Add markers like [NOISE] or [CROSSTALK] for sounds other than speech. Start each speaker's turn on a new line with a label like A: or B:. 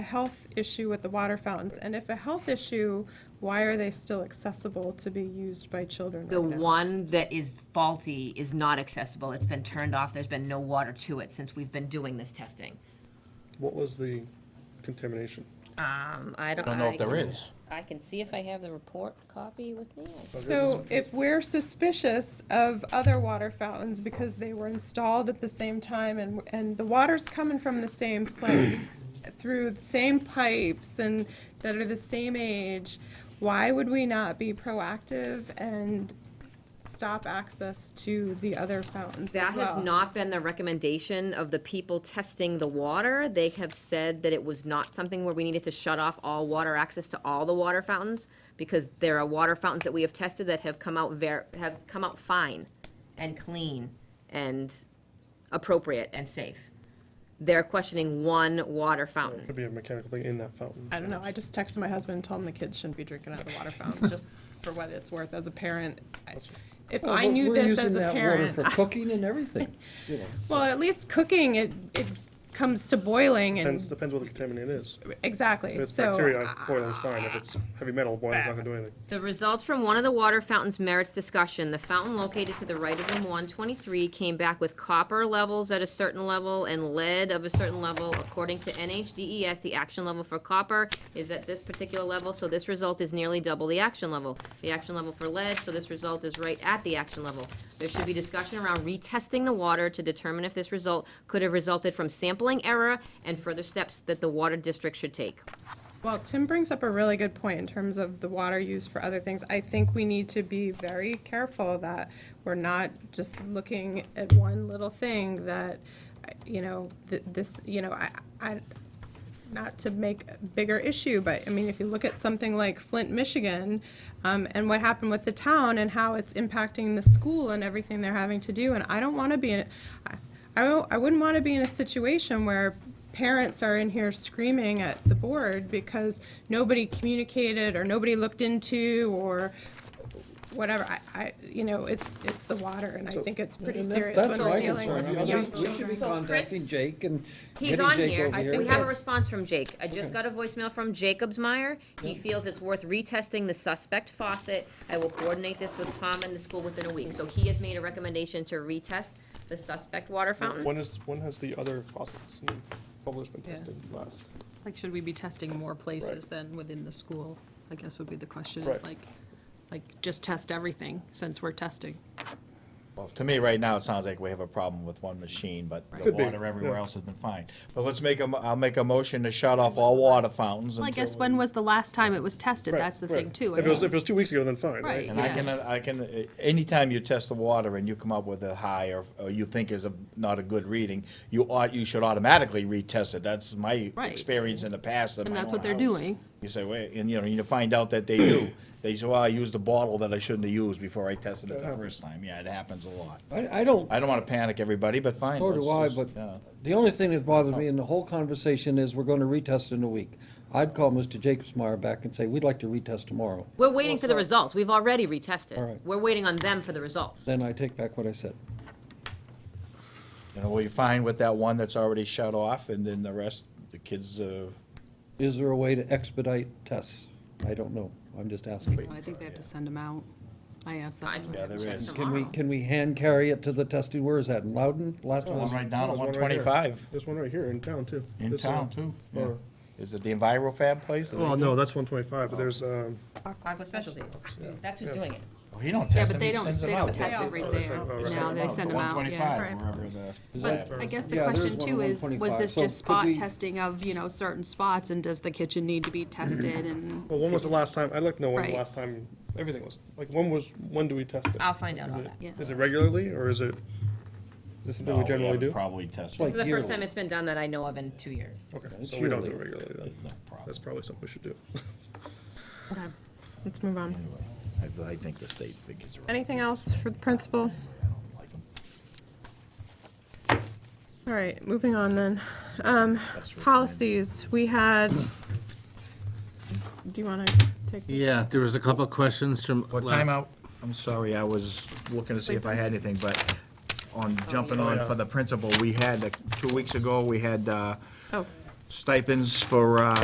A: a health issue with the water fountains, and if a health issue, why are they still accessible to be used by children
B: The
A: right now?
B: one that is faulty is not accessible. It's been turned off. There's been no water to it since we've been doing this testing.
C: What was the contamination?
B: Um, I don't.
D: I don't know if there
B: can-
D: is.
B: I can see if I have the report copy with me. I-
A: So if we're suspicious of other water fountains because they were installed at the same time and, and the water's coming from the
B: [CLEARS THROAT]
A: same place, through the same pipes and that are the same age, why would we not be proactive and stop access to the other fountains as
B: That
A: well?
B: has not been the recommendation of the people testing the water. They have said that it was not something where we needed to shut off all water access to all the water fountains because there are water fountains that we have tested that have come out ver, have come out fine and clean and appropriate and safe. They're questioning one water fountain.
C: Could be a mechanical thing in that fountain.
A: I don't know, I just texted my husband and told him the kids shouldn't be drinking out of the water
E: [LAUGHS]
A: fountain, just for what it's worth as a parent. I- If I knew this as a parent,
E: We're Oh, using that water for cooking and everything, you know.
A: Well, at least cooking, it, it comes to boiling
C: Depends,
A: and,
C: depends what the contaminant is. If
A: exactly,
C: it's
A: so.
C: bacteria, boiling's fine. If it's heavy metal, boiling's not gonna do anything.
B: The results from one of the water fountains merits discussion. The fountain located to the right of room 123 came back with copper levels at a certain level and lead of a certain level. According to NHDES, E the action level for copper is at this particular level, so this result is nearly double the action level. The action level for lead, so this result is right at the action level. There should be discussion around retesting the water to determine if this result could have resulted from sampling error and further steps that the water district should take.
A: Well, Tim brings up a really good point in terms of the water used for other things. I think we need to be very careful that we're not just looking at one little thing that, you know, th- this, you know, I, I, not to make a bigger issue, but I mean, if you look at something like Flint, Michigan, um, and what happened with the town and how it's impacting the school and everything they're having to do, and I don't want to be in, I- I, don't- I wouldn't want to be in a situation where parents are in here screaming at the board because nobody communicated or nobody looked into or whatever. I, I, you know, it's, it's the water, and I think it's [LAUGHS] pretty
E: And that's-
A: serious
E: that's
A: when we're
E: my
A: dealing
E: concern. I
A: with
E: mean,
A: young
E: we- We should
A: children.
E: be
B: So, Chris,
E: contacting Jake and
B: He's
E: getting
B: on
E: Jake
B: here.
E: over here.
B: We have a
A: that's-
B: response from Jake. I just got a voicemail from Jacobs Meyer. He feels it's worth retesting the suspect faucet. I will coordinate this with Tom and the school within a week. So he has made a recommendation to retest the suspect water fountain.
C: When is, when has the other faucets and bubblers been tested last?
F: Like, should we be testing more places
C: Right.
F: than within the school? I guess would be the question, is
C: Right.
F: like, like, just test everything since we're testing.
D: Well, to me, right now, it sounds like we have a problem with one machine, but the
C: Could be,
D: water everywhere
C: yeah.
D: else has been fine. But let's make a, mo- I'll make a motion to shut off all water fountains
F: Well, I
D: until,
F: guess when was the last time it was tested?
C: Right,
F: That's the
C: right.
F: thing too. I
C: If it was,
F: mean,
C: if it was two weeks ago, then fine, right?
F: Right.
D: and I
F: yeah.
D: can, I can, uh, anytime you test the water and you come up with a high or, or you think is a, not a good reading, you ought, you should automatically retest it. That's my
F: Right.
D: experience in the past at
F: And
D: my
F: that's
D: own
F: what they're
D: house.
F: doing.
D: You say, wait, and you know, you find out that they do. [CLEARS THROAT] They say, well, I used the bottle that I shouldn't have used before I tested it the first time. Yeah, it happens a lot.
E: I, I don't,
D: I don't want to panic everybody, but fine.
E: nor do I,
D: let's
E: but
D: just- yeah. Oh.
E: the only thing that bothers me in the whole conversation is we're gonna retest in a week. I'd call Mr. Jacobsmeyer back and say, we'd like to retest tomorrow.
B: We're waiting for the results. We've already
E: All
B: retested.
E: right.
B: We're waiting on them for the results.
E: Then I take back what I said.
D: You know, we find with that one that's already shut off, and then the rest, the kids, uh,
E: Is there a way to expedite tests? I don't know. I'm just asking.
F: I think they have to send them out. I asked
B: I
F: that.
B: can
D: Yeah, there
B: check
D: is.
E: Can we,
B: tomorrow.
E: can we hand carry it to the testing? Where is that? In Loudon? Last time?
D: one
E: was-
D: right down
C: No,
D: at
C: there's
D: one
C: right here.
D: twenty-five
C: There's one right here in town, too.
D: in
C: There's, uh,
D: town too. yeah.
C: or-
D: Is it the EnviroFab place?
C: Well, no, that's one twenty-five, but there's, um,
B: Aqua Specialties. That's who's doing it.
D: Oh, He don't
F: Yeah,
D: test
F: but
D: them, he
F: they don't,
D: sends
F: they
D: them
F: don't
D: out.
F: test it right
C: that's
F: there.
C: right, oh, right.
F: No, they send them out, yeah.
D: One twenty-five, wherever the.
E: Is
F: But
E: that-
F: I guess the
E: Yeah, there's
F: question
E: one
F: too
E: on
F: is, was
E: 125.
F: this
E: So
F: just
E: could
F: spot
E: we-
F: testing of, you know, certain spots and does the kitchen need to be tested and?
C: well, when was the last time, I'd like to know when the
F: Right.
C: last time everything was. Like, when was, when do we test it?
B: I'll find out
C: Is
B: about
C: it-
B: that.
F: Yeah.
C: Is it regularly, or is it, is this
D: No,
C: something we generally
D: haven't
C: do?
D: Probably test
B: This is
D: it,
B: the first
E: yearly.
B: time it's been done that I know of in two years.
C: Okay,
E: it's
C: so we don't do it
E: yearly.
C: regularly then.
D: no problem.
C: That's probably something we should do.
A: Let's move on.
D: I, I think the state figures are right.
A: Anything else for the principal?
D: I don't like them.
A: All right, moving on then. Um,
D: That's right.
A: Policies, we had, do you want to take? this?
G: Yeah, there was a couple of questions from.
D: Well, timeout. I'm sorry, I was looking to see if I had anything, but on jumping on for the principal, we had, uh, two weeks ago, we had, uh,
A: Oh,
D: stipends for, uh,